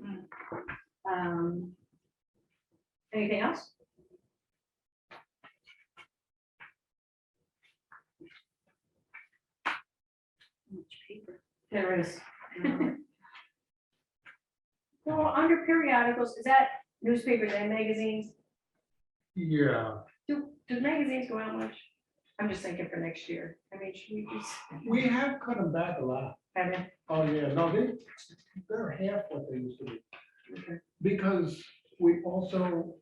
Hmm. Um, Anything else? There is. um, Well, under periodicals, is that newspapers and magazines? Yeah, Do, do magazines go out much? I'm just thinking for next year. I mean, should we just we have cut them back a lot. have it? Oh, yeah, no, they, they're half what they used to be. Okay. Because we also,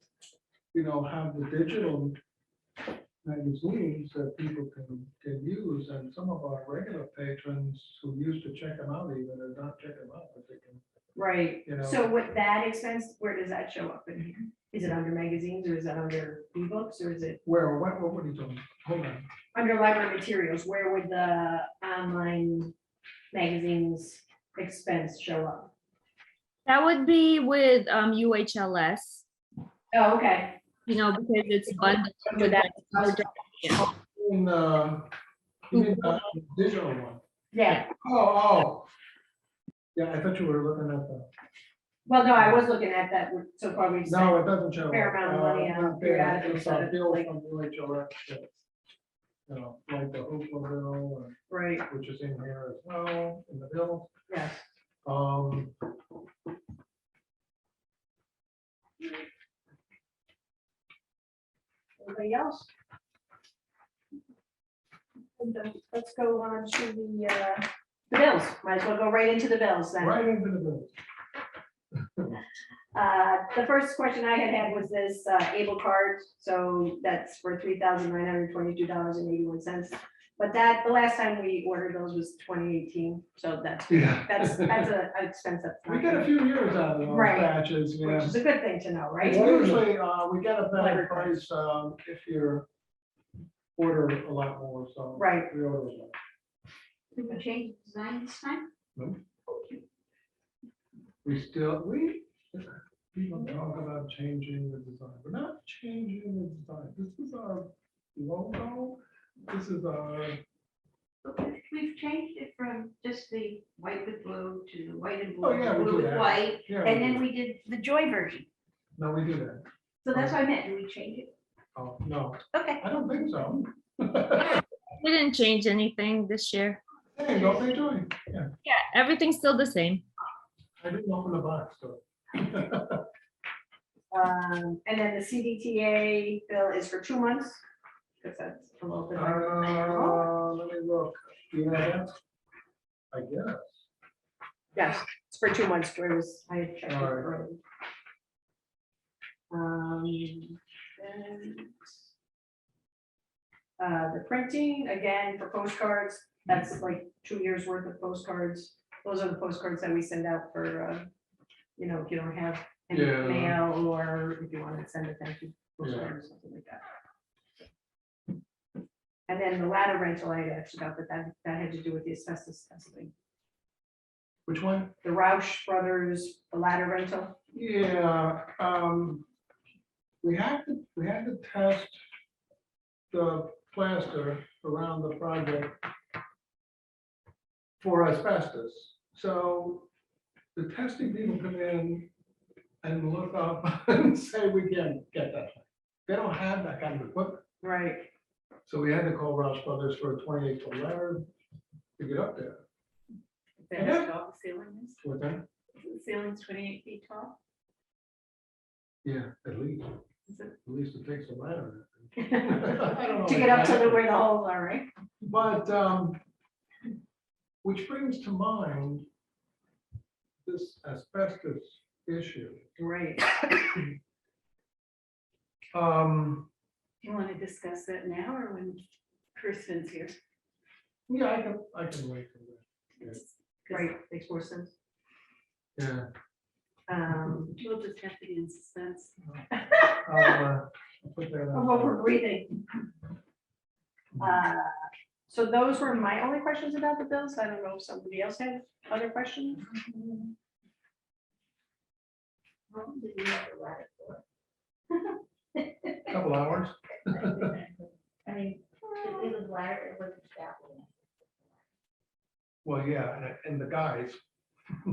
you know, have the digital magazines that people can, can use, and some of our regular patrons who used to check them out even, are not checking them out, but they can, Right. you know. So with that expense, where does that show up in here? Is it under magazines or is that under ebooks or is it Where, what, what are you doing? Hold on. under library materials? Where would the online magazines expense show up? That would be with um UHLS, Oh, okay. you know, because it's bundled Under with that, that. other doc- In, uh, you mean the digital one? yeah. Oh, oh. Yeah, I thought you were looking at the. Well, no, I was looking at that, so far we've spent No, it doesn't show. fair up. amount of money Uh, on not fair. periodicals It's that a it's bill like- from UHLS that, You know, like the Oakland bill, Right, uh, which is in here as well, in the bill. yes. Um, Anybody else? And, uh, Let's go on to the, uh, the bills. Might as well go right into the bills then. right into the bill. Uh, The first question I had had was this uh, Able card, so that's for three thousand nine hundred twenty-two dollars and eighty-one cents. But that, the last time we ordered those was twenty eighteen, so that's, Yeah. that's, that's a an expense that's We get a not- few years out of those Right. batches, you Which know. is a good thing to know, right? Usually, uh, we get a better Whatever. price, um, if you're order a lot more, so. Right. We order a lot. Did we change design this time? We still, we, people talk about changing the design, we're not changing the design, this is our logo, this is our, But we've- We've changed it from just the white with blue to the white and Oh, yeah, blue, we do blue with that. white, yeah. and then we did the joy version. No, we do that, So that's what I meant, do we change it? oh, no, Okay. I don't think so. We didn't change anything this year. Hey, don't they do it? yeah, Yeah, everything's still the same. I didn't open the box, Uh, so. Um, and then the CDTA bill is for two months, because that's a little Oh, bit. higher than that. Uh, let me look, you know, that's, I guess, Yes, it's for two months, Joy was, I had checked it Alright. earlier. Um, and, Uh, the printing, again, for postcards, that's like two years worth of postcards. Those are the postcards that we send out for, uh, you know, if you don't have any Yeah. mail or if you want to send a thank you postcard or something like that. And then the ladder rental I had actually got, but that, that had to do with the asbestos testing which one? the Roush Brothers, the ladder rental. Yeah, um, we had to, we had to test the plaster around the project for asbestos. So the testing people come in and look up and say, we can't get that. They don't have that kind of equipment. Right. So we had to call Roush Brothers for a twenty-eight foot ladder to get up there. And that- tall the ceiling is? With them, The ceiling's twenty-eight feet tall? yeah, at least, Is at it- least it takes a ladder. I don't know To get up to the, exactly. where the holes are, right? But, um, which brings to mind this asbestos issue. Right. Um, Do you want to discuss that now or when Kirsten's here? yeah, I can, I can wait for that. Right, makes more sense. Yeah. Um, We'll just have to be in suspense. I'll, uh, I'll put that of what we're on. breathing. Uh, So those were my only questions about the bills. I don't know if somebody else had other questions. How long did you have the ladder for? Couple hours. I mean, it was ladder, it wasn't that long. Well, yeah, and- and the guys